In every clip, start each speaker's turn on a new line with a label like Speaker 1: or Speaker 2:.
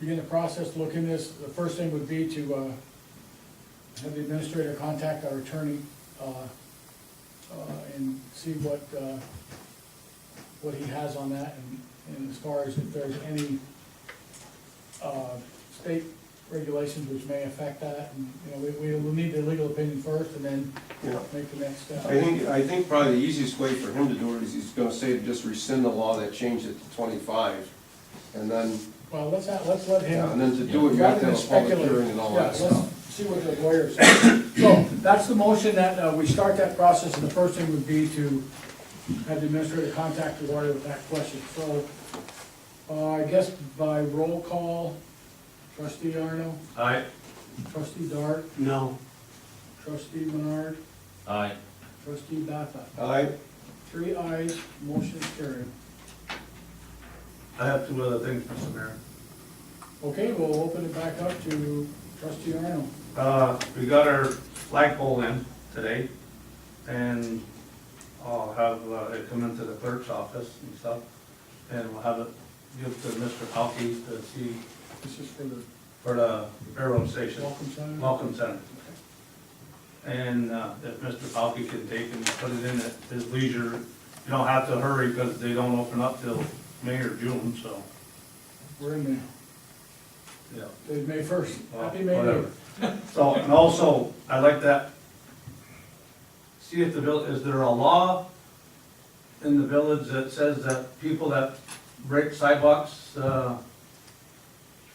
Speaker 1: begin the process, to look in this, the first thing would be to, uh, have the administrator contact our attorney, uh, uh, and see what, uh, what he has on that, and, and as far as if there's any, uh, state regulations which may affect that, and, you know, we, we will need the legal opinion first, and then
Speaker 2: Yeah.
Speaker 1: make the next step.
Speaker 2: I think, I think probably the easiest way for him to do it is he's gonna say to just rescind the law that changed it to twenty-five. And then,
Speaker 1: Well, let's, not- let's let him.
Speaker 2: and then to do it, you have to have a public hearing and all that
Speaker 1: Yeah, let's
Speaker 2: stuff.
Speaker 1: See what the lawyer says. So, that's the motion that, uh, we start that process, and the first thing would be to have the administrator contact the lawyer with that question. So, uh, I guess by roll call, trustee Arno,
Speaker 3: Aye.
Speaker 1: trustee Dart,
Speaker 4: No.
Speaker 1: trustee Menard,
Speaker 3: Aye.
Speaker 1: trustee Batha.
Speaker 2: Aye,
Speaker 1: Three ayes, motion is carried.
Speaker 4: I have two other things, Mr. Mayor.
Speaker 1: Okay, we'll open it back up to trustee Arno.
Speaker 4: Uh, we got our flagpole in today, and I'll have uh, it come into the clerk's office and stuff, and we'll have it give to Mr. Palkey to see
Speaker 1: This is for the
Speaker 4: for the railroad station,
Speaker 1: welcome center.
Speaker 4: Welcome Center. And uh, if Mr. Palkey can take and put it in at his leisure, you don't have to hurry, because they don't open up till May or June, so,
Speaker 1: We're in there.
Speaker 4: yeah.
Speaker 1: It's May first.
Speaker 4: Well,
Speaker 1: Happy May Day.
Speaker 4: Oh, whatever. So, and also, I like that, see if the vill, is there a law in the village that says that people that break sidewalks, uh,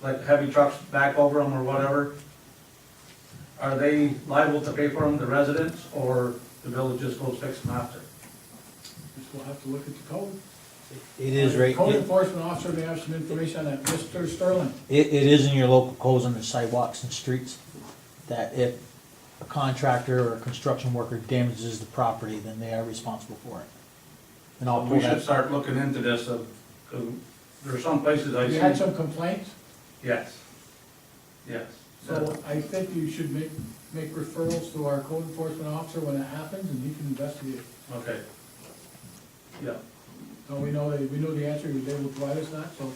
Speaker 4: like heavy trucks back over them or whatever, are they liable to pay for them, the residents, or the village just goes fix them after?
Speaker 1: Just we'll have to look at the code.
Speaker 5: It is right,
Speaker 1: Code
Speaker 5: it,
Speaker 1: enforcement officer may have some information on that. Mr. Sterling,
Speaker 5: it is in your local codes under sidewalks and streets, that if a contractor or a construction worker damages the property, then they are responsible for it. And I'll pull
Speaker 4: Uh, We should
Speaker 5: that,
Speaker 4: start looking into this, uh, 'cause there are some places I
Speaker 1: you had
Speaker 4: see,
Speaker 1: some complaints,
Speaker 4: yes, yes.
Speaker 1: so I think you should make, make referrals to our code enforcement officer when it happens and he can investigate.
Speaker 4: Okay. Yeah.
Speaker 1: Now, we know, that- we know the answer, they will provide us that, so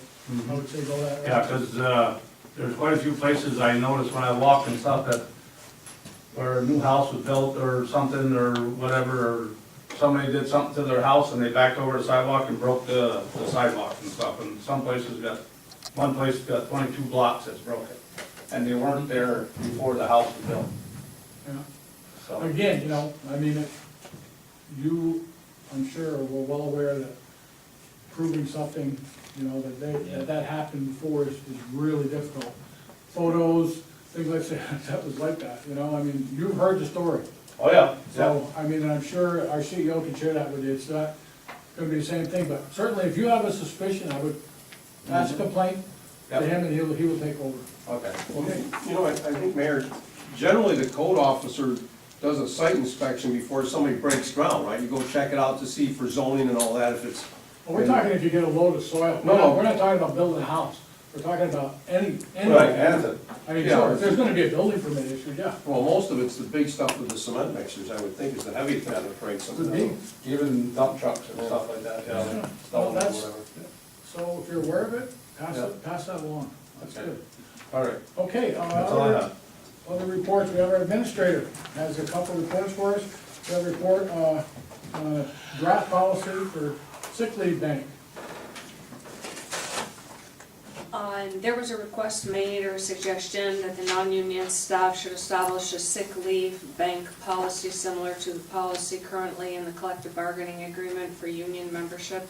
Speaker 1: I would say go that
Speaker 4: Mm-hmm. Yeah,
Speaker 1: route.
Speaker 4: because, uh, there's quite a few places I noticed when I walk and stuff that, where a new house was built or something or whatever, or somebody did something to their house and they backed over the sidewalk and broke the the sidewalk and stuff, and some places got, one place got twenty-two blocks that's broken, and they weren't there before the house was built,
Speaker 1: Yeah.
Speaker 4: so.
Speaker 1: Again, you know, I mean, it- you, I'm sure, were well aware that proving something, you know, that they,
Speaker 3: Yeah.
Speaker 1: that that happened before is, is really difficult. Photos, things like that, that was like that, you know, I mean, you've heard the story.
Speaker 4: Oh, yeah, yeah,
Speaker 1: So, I mean, and I'm sure our CEO can share that with you, it's not gonna be the same thing, but certainly if you have a suspicion, I would, that's a complaint to
Speaker 4: Yep.
Speaker 1: him and he'll, he will take over.
Speaker 4: okay.
Speaker 1: Okay.
Speaker 2: you know, I, I think, Mayor, generally the code officer does a site inspection before somebody breaks ground, right? You go check it out to see for zoning and all that, if it's,
Speaker 1: Well, we're talking if you get a load of soil,
Speaker 2: No, no.
Speaker 1: we're not talking about building a house, we're talking about any, any.
Speaker 2: Right, and the-
Speaker 1: I mean,
Speaker 2: yeah.
Speaker 1: sure, if there's gonna be a building permit issue, yeah.
Speaker 2: well, most of it's the big stuff with the cement mixers, I would think, is the heavy kind that breaks something. out.
Speaker 4: Even dump trucks and stuff like that, yeah.
Speaker 1: Yeah.
Speaker 4: Stuff
Speaker 1: Well,
Speaker 4: or
Speaker 1: that's-
Speaker 4: whatever.
Speaker 1: So if you're aware of it, pass
Speaker 4: Yeah.
Speaker 1: it, pass that along, that's
Speaker 4: Okay.
Speaker 1: good.
Speaker 4: All right,
Speaker 1: Okay, uh,
Speaker 4: that's all I
Speaker 1: other,
Speaker 4: have.
Speaker 1: other reports, we have our administrator, has a couple reports for us. We have a report, uh, on a draft policy for sick leave bank.
Speaker 6: Uh, There was a request made or a suggestion that the non-union staff should establish a sick leave bank policy similar to the policy currently in the collective bargaining agreement for union membership.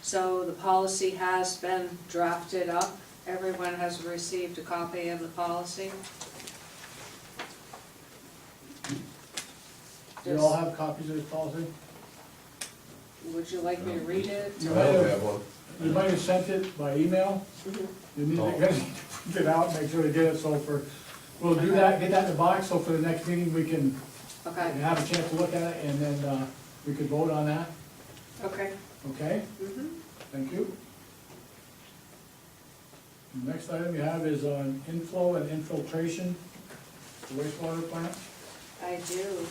Speaker 6: So the policy has been drafted up. Everyone has received a copy of the policy.
Speaker 1: Do you all have copies of this policy?
Speaker 6: Would you like me to read it?
Speaker 1: You
Speaker 2: I
Speaker 1: might
Speaker 2: don't
Speaker 1: have,
Speaker 2: have one.
Speaker 1: you might have sent it by email. You need to
Speaker 2: Oh.
Speaker 1: get it, get out, make sure to get it, so for, we'll do that, get that in the box, so for the next meeting, we can
Speaker 6: Okay,
Speaker 1: have a chance to look at it, and then, uh, we could vote on that,
Speaker 6: okay.
Speaker 1: okay?
Speaker 6: Mhm.
Speaker 1: Thank you. The Next item we have is on inflow and infiltration wastewater plant.
Speaker 6: I do.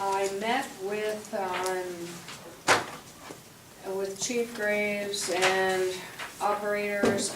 Speaker 6: I met with, um, with Chief Graves and operators